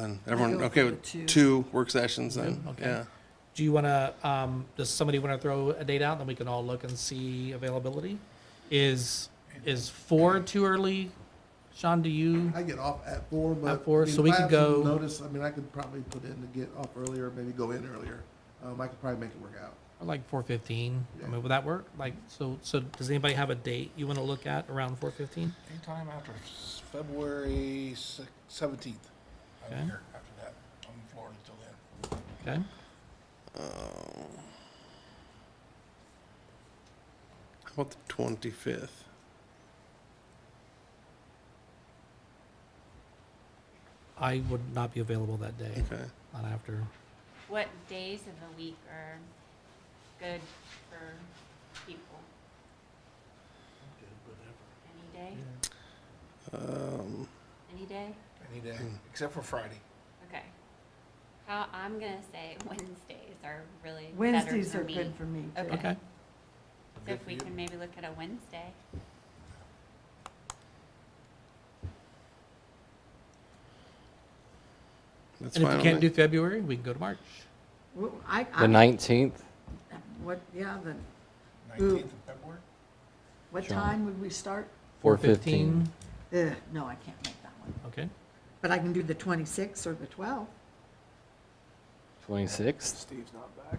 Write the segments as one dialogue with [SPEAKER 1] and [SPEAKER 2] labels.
[SPEAKER 1] Then everyone,
[SPEAKER 2] go
[SPEAKER 1] okay,
[SPEAKER 2] for
[SPEAKER 1] with
[SPEAKER 2] two.
[SPEAKER 1] two work sessions then,
[SPEAKER 3] Okay.
[SPEAKER 1] yeah.
[SPEAKER 3] Do you want to, um, does somebody want to throw a date out, then we can all look and see availability? Is, is four too early? Sean, do you,
[SPEAKER 4] I get off at four, but.
[SPEAKER 3] At four,
[SPEAKER 4] I mean,
[SPEAKER 3] so we
[SPEAKER 4] if I
[SPEAKER 3] could
[SPEAKER 4] have some
[SPEAKER 3] go-
[SPEAKER 4] Notice, I mean, I could probably put in to get off earlier, maybe go in earlier. Um, I could probably make it work out.
[SPEAKER 3] or like four fifteen? I
[SPEAKER 4] Yeah.
[SPEAKER 3] mean, would that work? Like, so, so does anybody have a date you want to look at around four fifteen?
[SPEAKER 5] Anytime after s- February seventeenth. I'm
[SPEAKER 3] Okay.
[SPEAKER 5] here after that. I'm in Florida until then.
[SPEAKER 3] Okay,
[SPEAKER 1] How about the twenty-fifth?
[SPEAKER 3] I would not be available that day,
[SPEAKER 1] Okay,
[SPEAKER 3] not after.
[SPEAKER 6] What days of the week are good for people? Any day?
[SPEAKER 1] um,
[SPEAKER 6] Any day?
[SPEAKER 5] Any day, except for Friday.
[SPEAKER 6] Okay. How, I'm gonna say Wednesdays are really better
[SPEAKER 2] Wednesdays
[SPEAKER 6] for
[SPEAKER 2] are
[SPEAKER 6] me.
[SPEAKER 2] good for me. too.
[SPEAKER 6] Okay.
[SPEAKER 3] Okay,
[SPEAKER 6] So
[SPEAKER 5] Good
[SPEAKER 6] if
[SPEAKER 5] for
[SPEAKER 6] we
[SPEAKER 5] you.
[SPEAKER 6] can maybe look at a Wednesday.
[SPEAKER 1] that's
[SPEAKER 3] and if
[SPEAKER 1] fine.
[SPEAKER 3] you
[SPEAKER 1] with
[SPEAKER 3] can't
[SPEAKER 1] me.
[SPEAKER 3] do February, we can go to March.
[SPEAKER 2] Well, I,
[SPEAKER 7] The
[SPEAKER 2] I,
[SPEAKER 7] nineteenth,
[SPEAKER 2] what, yeah, the,
[SPEAKER 5] Nineteenth of February.
[SPEAKER 2] what
[SPEAKER 7] Sure.
[SPEAKER 2] time would we start?
[SPEAKER 7] four fifteen.
[SPEAKER 2] Ugh, no, I can't make that one.
[SPEAKER 3] Okay,
[SPEAKER 2] But I can do the twenty-sixth or the twelfth.
[SPEAKER 7] Twenty-sixth.
[SPEAKER 5] Steve's not back.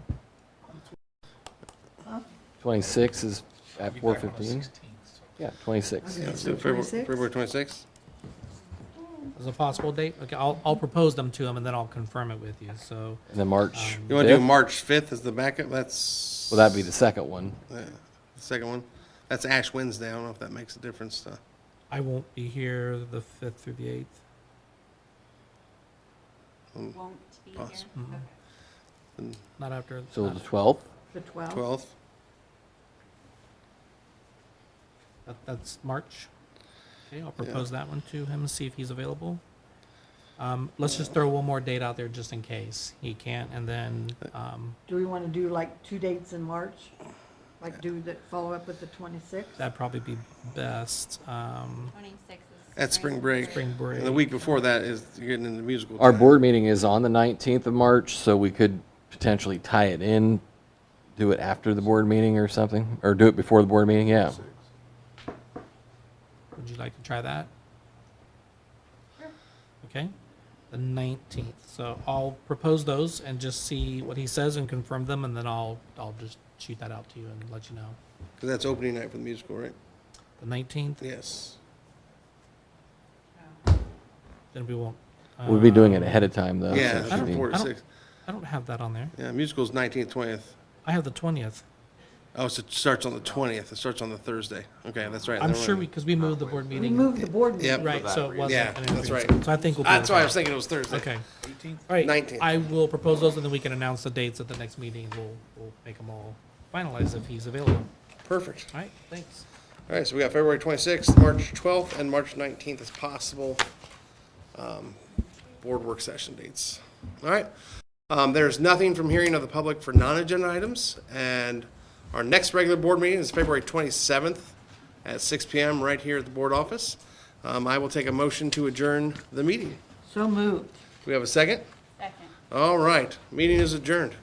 [SPEAKER 7] Twenty-six is at
[SPEAKER 5] He'll be
[SPEAKER 7] four
[SPEAKER 5] back on the
[SPEAKER 7] fifteen.
[SPEAKER 5] 16th, so-
[SPEAKER 7] Yeah, twenty-six.
[SPEAKER 2] Okay.
[SPEAKER 1] Yeah,
[SPEAKER 2] So
[SPEAKER 1] so February,
[SPEAKER 2] 26th?
[SPEAKER 1] February twenty-sixth?
[SPEAKER 3] is a possible date? Okay, I'll, I'll propose them to them and then I'll confirm it with you, so.
[SPEAKER 7] And then March
[SPEAKER 3] Um,
[SPEAKER 1] You wanna do
[SPEAKER 7] fifth.
[SPEAKER 1] March fifth as the backup, that's.
[SPEAKER 7] Will that be the second one?
[SPEAKER 1] yeah, the Second one, that's Ash Wednesday, I don't know if that makes a difference to,
[SPEAKER 3] I won't be here the fifth through the eighth.
[SPEAKER 1] um,
[SPEAKER 6] Won't be here.
[SPEAKER 1] Poss-
[SPEAKER 3] Mhm.
[SPEAKER 6] Okay.
[SPEAKER 3] Not after.
[SPEAKER 7] So
[SPEAKER 3] not-
[SPEAKER 7] the twelfth.
[SPEAKER 2] The
[SPEAKER 3] Oh.
[SPEAKER 2] twelfth,
[SPEAKER 1] twelfth,
[SPEAKER 3] that- That's March. Okay, I'll propose that one to him, see if he's available. Um, let's just throw one more date out there just in case he can't, and then,
[SPEAKER 1] Uh,
[SPEAKER 3] um,
[SPEAKER 2] do we want to do like two dates in March? Like do the, follow up with the twenty-sixth?
[SPEAKER 3] that'd probably be best, um,
[SPEAKER 6] Twenty-six is.
[SPEAKER 1] At spring break.
[SPEAKER 3] spring break.
[SPEAKER 1] and the week before that is, you're getting into musical.
[SPEAKER 7] Our
[SPEAKER 1] time.
[SPEAKER 7] board meeting is on the nineteenth of March, so we could potentially tie it in, do it after the board meeting or something, or do it before the board meeting, yeah.
[SPEAKER 3] Would you like to try that? Okay, the nineteenth, so I'll propose those and just see what he says and confirm them, and then I'll, I'll just shoot that out to you and let you know.
[SPEAKER 1] 'Cause that's opening night for the musical, right?
[SPEAKER 3] The nineteenth,
[SPEAKER 1] Yes.
[SPEAKER 3] then we won't.
[SPEAKER 7] We'll be doing it
[SPEAKER 3] um,
[SPEAKER 7] ahead of time, though. so it
[SPEAKER 1] Yeah,
[SPEAKER 7] should
[SPEAKER 1] from
[SPEAKER 7] be-
[SPEAKER 1] four to
[SPEAKER 3] I don't-
[SPEAKER 1] six,
[SPEAKER 3] I don't have that on there.
[SPEAKER 1] yeah, musical's nineteenth, twentieth.
[SPEAKER 3] I have the twentieth.
[SPEAKER 1] Oh, so it starts on the twentieth. It starts on the Thursday. Okay, that's right.
[SPEAKER 3] I'm
[SPEAKER 1] Never
[SPEAKER 3] sure we,
[SPEAKER 1] mind.
[SPEAKER 3] because we moved the board
[SPEAKER 2] We
[SPEAKER 3] meeting.
[SPEAKER 2] moved the board meeting.
[SPEAKER 1] Yep.
[SPEAKER 3] Right, so it wasn't.
[SPEAKER 1] Yeah,
[SPEAKER 3] an
[SPEAKER 1] that's
[SPEAKER 3] increase.
[SPEAKER 1] right.
[SPEAKER 3] So I think we'll. be
[SPEAKER 1] That's why I was
[SPEAKER 3] okay.
[SPEAKER 1] thinking it was Thursday.
[SPEAKER 3] Okay.
[SPEAKER 5] Eighteenth?
[SPEAKER 3] All right.
[SPEAKER 1] 19th.
[SPEAKER 3] I will propose those and then we can announce the dates at the next meeting. We'll, we'll make them all finalized if he's available.
[SPEAKER 1] Perfect.
[SPEAKER 3] All right, thanks.
[SPEAKER 1] All right, so we got February twenty-sixth, March twelfth, and March nineteenth as possible um, board work session dates. All right. Um, There's nothing from hearing of the public for non-agenda items, and our next regular board meeting is February twenty-seventh at six PM right here at the board office. Um, I will take a motion to adjourn the meeting.
[SPEAKER 2] So moved.
[SPEAKER 1] Do we have a second?
[SPEAKER 6] Second.
[SPEAKER 1] All right, meeting is adjourned.